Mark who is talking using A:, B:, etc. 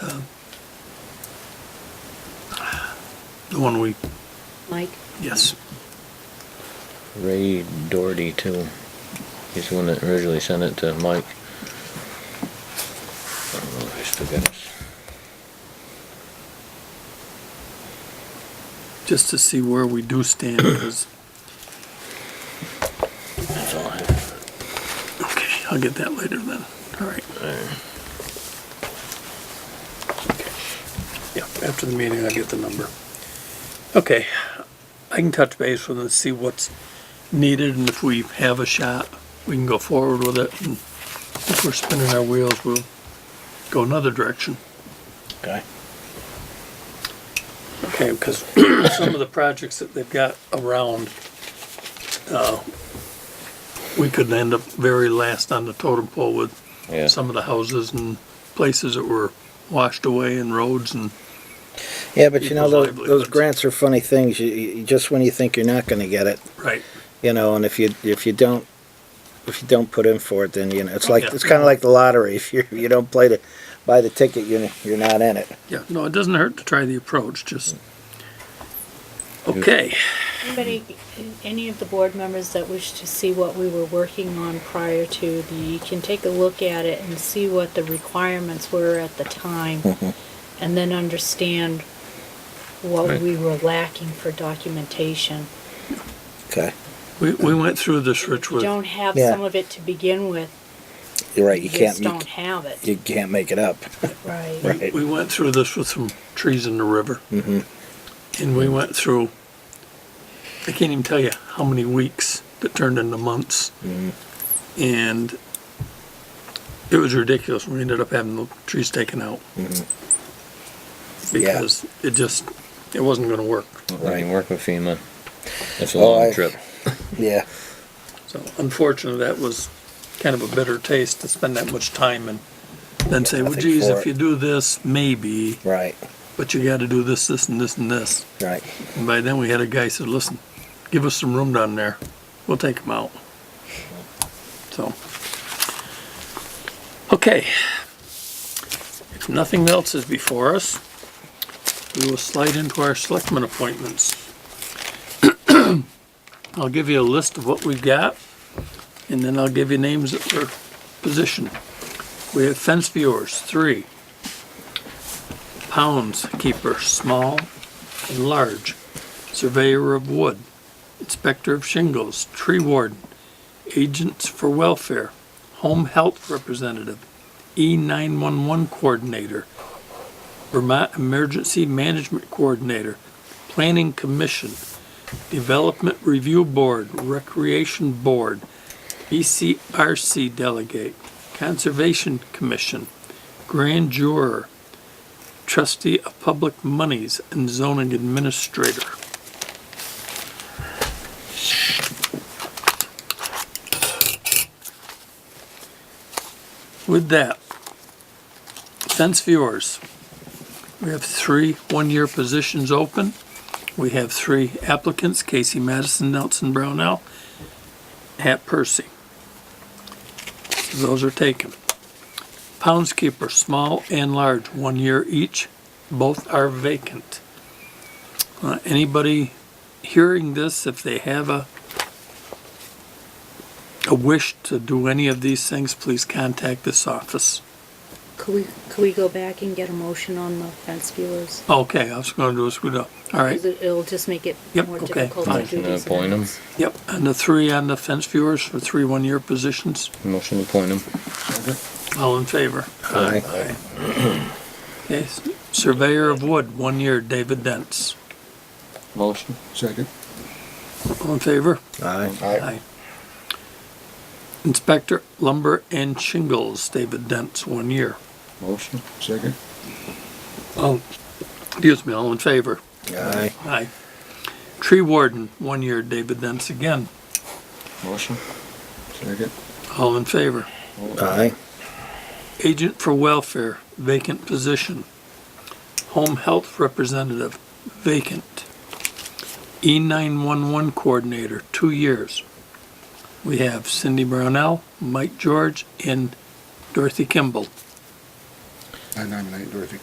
A: uh, The one we,
B: Mike?
A: yes.
C: Ray Doherty too. He's the one that originally sent it to Mike. I don't know if he still got us.
A: Just to see where we do stand, because,
C: That's all I have.
A: okay, I'll get that later then. All right. Yeah, after the meeting, I'll get the number. Okay, I can touch base with them, see what's needed, and if we have a shot, we can go forward with it. And If we're spinning our wheels, we'll go another direction.
C: Okay.
A: Okay, because some of the projects that they've got around, uh, we could end up very last on the totem pole with
C: Yeah.
A: some of the houses and places that were washed away and roads and,
D: Yeah, but you know,
A: People's
D: those, those
A: livelihoods.
D: grants are funny things. You, you, just when you think you're not gonna get it,
A: right,
D: you know, and if you, if you don't, if you don't put in for it, then, you know, it's like,
A: Yeah.
D: it's kinda like the lottery. If you, you don't play the, buy the ticket, you're, you're not in it.
A: yeah, no, it doesn't hurt to try the approach, just, okay,
B: Anybody, any of the board members that wish to see what we were working on prior to the, can take a look at it and see what the requirements were at the time, and then understand what
C: Right.
B: we were lacking for documentation.
D: Okay,
A: we, we went through this,
B: If
A: Rich,
B: you
A: with,
B: don't have
D: Yeah.
B: some of it to begin with,
D: you're right.
B: you
D: You can't,
B: just
D: you,
B: don't have it.
D: you can't make it up.
B: Right.
D: Right.
A: we went through this with some trees in the river.
D: Mm-hmm.
A: And we went through, I can't even tell you how many weeks that turned into months.
D: Mm-hmm.
A: And it was ridiculous. We ended up having the trees taken out.
D: Mm-hmm.
A: Because it just, it wasn't gonna work.
C: I can work with FEMA. That's a
D: Well,
C: long
D: I-
C: trip.
D: Yeah,
A: So unfortunately, that was kind of a bitter taste to spend that much time and then say, well,
D: Nothing
A: geez,
D: for
A: if
D: it."
A: you do this, maybe,
D: right,
A: but you gotta do this, this and this and this.
D: right.
A: And by then we had a guy said, listen, give us some room down there. We'll take him out. So. Okay. If nothing else is before us, we will slide into our selectmen appointments. I'll give you a list of what we've got and then I'll give you names that were positioned. We have fence viewers, three. Pounds keeper, small, and large, surveyor of wood, inspector of shingles, tree warden, agents for welfare, home health representative, E E911 coordinator, Vermont Emergency Management Coordinator, Planning Commission, Development Review Board, Recreation Board, E BCRC delegate, Conservation Commission, Grand Juror, trustee of public monies and zoning administrator. With that, fence viewers, we have three one-year positions open. We have three applicants, Casey Madison, Nelson Brownell, Hat Percy. Those are taken. Poundskeeper, small and large, one year each. Both are vacant. Uh, Anybody hearing this, if they have a, a wish to do any of these things, please contact this office.
B: Could we, could we go back and get a motion on the fence viewers?
A: Okay, I was gonna do a screw up. All right,
B: 'Cause it- It'll just make it
A: Yep,
B: more
A: okay,
B: difficult to
A: fine.
B: do
C: Motion to
B: these
C: appoint him.
B: amendments.
A: yep, and the three on the fence viewers for three one-year positions,
C: Motion to appoint him.
A: all in favor.
D: Aye.
A: Okay, surveyor of wood, one year, David Dents.
C: Motion.
E: Second.
A: All in favor?
D: Aye.
A: Aye. Inspector Lumber and Shingles, David Dents, one year.
C: Motion.
E: Second.
A: Oh, excuse me, all in favor?
D: Aye.
A: Aye. Tree Warden, one year, David Dents again,
C: Motion.
E: Second.
A: all in favor.
D: Aye.
A: Agent for Welfare, vacant position. Home Health Representative, vacant. E E911 Coordinator, two years. We have Cindy Brownell, Mike George, and Dorothy Kimball.
E: I Uh, nominate Dorothy